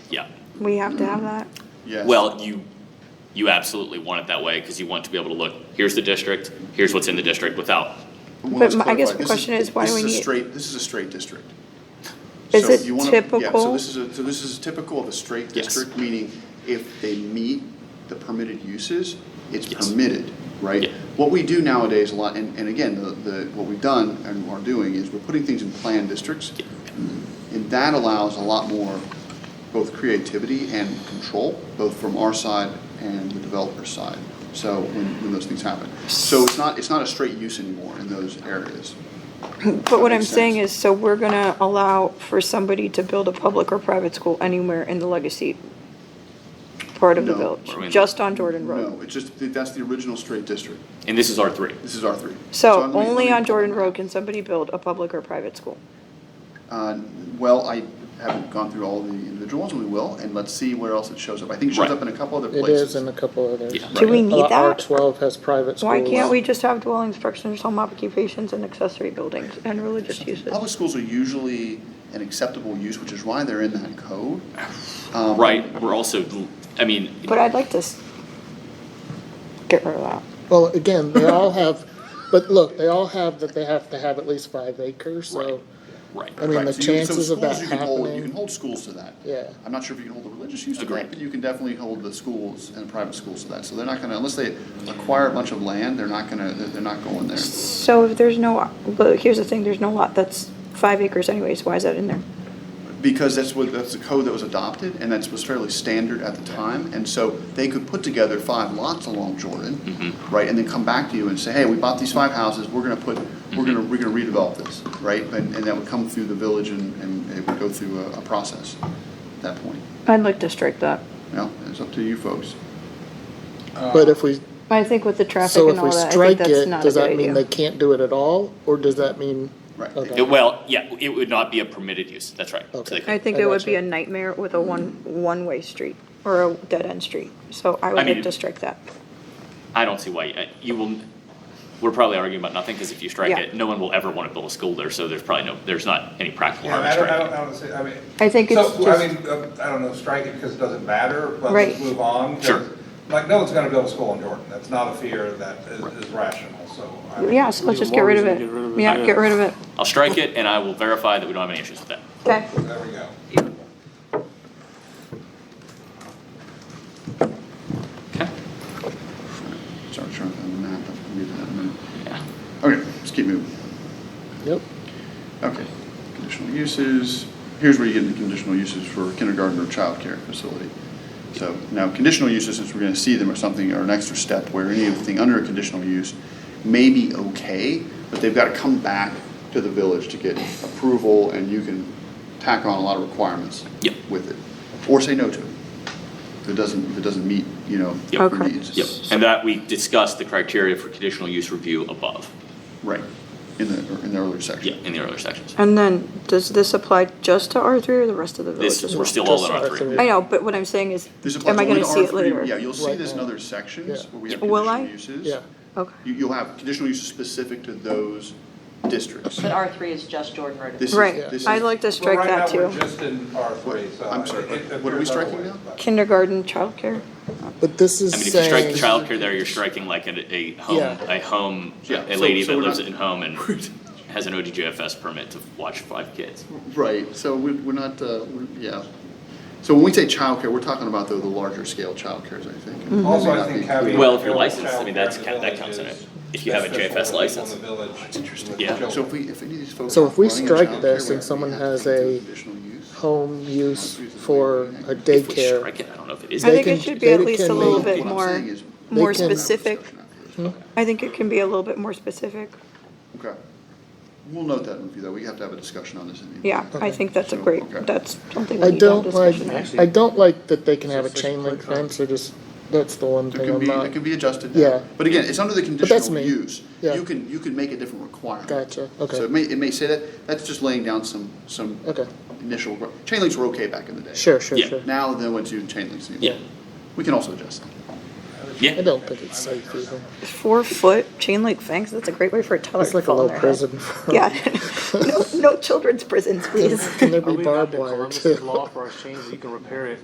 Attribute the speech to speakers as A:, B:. A: Yeah.
B: We have to have that.
C: Yes.
A: Well, you, you absolutely want it that way because you want to be able to look, here's the district, here's what's in the district without.
B: But
C: Well, let's
B: my- I guess
C: clarify.
B: the
C: This
B: question is, why do we
C: This is
B: need-
C: a straight, this is a straight district.
B: Is
C: So
B: it
C: you wanna- yeah, So
B: typical?
C: this is, a- so this is typical of a straight
A: Yes.
C: district, meaning if they meet the permitted uses, it's
A: Yes.
C: permitted, right?
A: Yeah.
C: What we do nowadays a lot, and, and again, the, the, what we've done and are doing is we're putting things in planned districts. And that allows a lot more both creativity and control, both from our side and the developer's side. So when, when those things happen. So it's not, it's not a straight use anymore in those areas.
B: But what I'm
C: makes
B: saying
C: sense.
B: is, so we're gonna allow for somebody to build a public or private school anywhere in the legacy part of the
C: No.
A: I mean-
B: village, just on Jordan Road.
C: No, it's just, that's the original straight district.
A: And this is R three.
C: This is R three.
B: So
C: let me- let
B: only
C: me-
B: on Jordan Road can somebody build a public or private school.
C: Uh, Well, I haven't gone through all the individual ones, we will, and let's see where else it shows up. I think it shows
A: Right.
C: up in a couple other
D: It is
C: places.
D: in a couple others. Uh,
A: Yeah.
B: Do we need
D: R
B: that?
D: twelve has private schools.
B: Why can't we just have dwelling structures, home occupations, and accessory buildings, and religious uses?
C: Public schools are usually an acceptable use, which is why they're in that code. Um,
A: Right, we're also, I mean,
B: But I'd like to s- get rid of that.
D: Well, again, they all have, but look, they all have that they have to have at least five acres,
A: Right.
D: so,
A: right.
D: I mean,
C: right,
D: the
C: so you- so
D: chances of
C: schools
D: that
C: you can hold- You can
D: happening.
C: hold schools to that.
D: Yeah.
C: I'm not sure if you can hold the religious use to
A: Agreed.
C: that, but you can definitely hold the schools and private schools to that. So they're not gonna, unless they acquire a bunch of land, they're not gonna, they're they're not going there.
B: So if there's no, but here's the thing, there's no lot that's five acres anyways, why is that in there?
C: Because that's what, that's the code that was adopted, and that's was fairly standard at the time, and so they could put together five lots along Jordan, right, and then come back to you and say, hey, we bought these five houses, we're gonna put, we're gonna, we're gonna redevelop this, right? And, and that would come through the village and, and it would go through a, a process at that point.
B: I'd like to strike that.
C: Well, it's up to you folks.
D: but if we,
B: I think with the traffic
D: so
B: and
D: if
B: all
D: we
B: that, I think
D: strike
B: that's
D: it,
B: not a
D: does
B: good
D: that mean they
B: idea.
D: can't do it at all, or does that mean?
C: Right.
A: It-
D: Okay.
A: Well, yeah, it would not be a permitted use, that's right. So
D: Okay.
A: they could-
B: I think
D: I
B: it would
D: gotcha.
B: be a nightmare with a one, one-way street or a dead-end street, so I
A: I
B: would
A: mean-
B: like to strike that.
A: I don't see why, uh, you will, we're probably arguing about nothing, because if you strike
B: Yeah.
A: it, no one will ever want to build a school there, so there's probably no, there's not any practical
E: Yeah,
A: harm
E: I
A: in
E: don't, I
A: striking
E: don't,
A: it.
E: I don't see, I mean.
B: I think it's
E: So, I
B: just-
E: mean, uh, I don't know, strike it because it doesn't matter, but
B: Right.
E: let's move on. 'cause,
A: Sure.
E: Like, no one's gonna build a school in Jordan, that's not a fear that is is rational, so. I mean,
B: Yeah, so let's just get rid of it. Yeah, get rid of it.
A: I'll strike it, and I will verify that we don't have any issues with that.
B: Okay.
E: There we go.
A: Okay?
C: Sorry, I'm trying to find the map, I can read that in a minute.
A: Yeah.
C: Okay, let's keep moving.
D: Yep,
C: Okay, conditional uses, here's where you get into conditional uses for kindergarten or childcare facility. So now, conditional uses, since we're gonna see them or something, or an extra step where anything under a conditional use may be okay, but they've gotta come back to the village to get approval, and you can tack on a lot of requirements
A: Yep.
C: with it, or say no to it, if it doesn't, if it doesn't meet, you know,
A: Yep.
C: your
B: Okay.
C: needs.
A: Yep, and that we discussed the criteria for conditional use review above,
C: Right, in the, in the earlier section.
A: yeah, in the earlier sections.
B: And then, does this apply just to R three or the rest of the village
A: This,
B: as
A: we're
B: well?
A: still all in
D: Just
A: R
D: R three.
A: three.
B: I know, but what I'm saying is,
C: There's a
B: am I
C: bunch- only
B: gonna see it
C: R3
B: later?
C: Yeah, you'll see
D: Right
C: this in
D: now.
C: other sections
D: Yeah.
C: where we have
B: Will I?
C: conditional uses.
D: yeah.
B: Okay.
C: You, you'll have conditional uses specific to those districts.
F: But R three is just Jordan Road.
C: This is-
B: Right,
C: this
B: I'd
C: is-
B: like to
E: But
B: strike that
E: Right now,
B: too.
E: we're just in R three, so.
C: I'm sorry,
E: it- it
C: what are we
E: appears
C: striking
E: otherwise,
C: now?
E: but-
B: Kindergarten, childcare.
D: But this is
A: I mean, if you strike
D: saying,
A: the childcare there, you're striking like a, a home,
D: Yeah.
A: a home,
C: Yeah,
A: a
C: so-
A: lady
C: so
A: that
C: we're
A: lives
C: not-
A: in home and has an ODJFS permit to watch five kids.
C: Right, so we, we're not, uh, we're- yeah. So when we say childcare, we're talking about though the larger scale childcares, I
B: Mm-hmm.
C: think.
E: Also,
C: May
E: I
C: not
E: think
C: be-
E: having.
A: Well, if you're
E: a
A: licensed, I mean,
E: child care
A: that's
E: in
A: ca-
E: the
A: that
E: village
A: counts in it.
E: is
A: If you have a
E: beneficial
A: JFS
E: for people in the
A: license.
E: village with
A: Yeah.
E: children.
C: So if we, if any of these folks.
D: So if we
C: aren't running a
D: strike
C: childcare,
D: this
C: we-
D: and
C: we
D: someone
C: have to
D: has
C: take
D: a-
C: the Conditional use.
D: home use for a
A: If we
D: daycare.
A: strike it, I don't know if it is.
B: I think
D: can-
B: it should be
D: they
B: at least a
D: can
B: little
D: make-
B: bit
C: What I'm
B: more,
C: saying is-
B: more
D: They can-
B: specific.
D: Hmm?
B: I think it can be a little bit more specific.
C: Okay. We'll note that in review though, we have to have a discussion on this. in the-
B: Yeah, I think that's a
C: So,
B: great,
C: okay.
B: that's something we
D: I
B: need to have
D: don't like,
B: discussion on.
D: I don't like that they can have a chain link fence, or just, that's the one
C: It
D: thing
C: can
D: I'm
C: be, it
D: not,
C: can be adjusted now.
D: Yeah.
C: But again, it's under the
D: that's
C: conditional
D: me.
C: use.
D: Yeah.
C: You can, you can make a different requirement.
D: Gotcha, okay.
C: So it may, it may say that, that's just laying down some, some
D: okay,
C: initial, gro- chain links were okay back in the day.
D: sure, sure,
A: Yeah.
D: sure.
C: Now, then, once you chain links,
A: Yeah.
C: anymore. we can also adjust that.
D: I
A: Yeah,
D: don't think it's safe either.
B: Four foot chain link fence, that's a great way for a toddler
D: It's
B: to
D: like a
B: fall in
D: little
B: their head.
D: prison.
B: Yeah, no, no children's prisons, please.
D: Can there be
G: Are we back
D: barbed
G: to
D: wire
G: Columbus
D: too?
G: Law for our change, you can repair it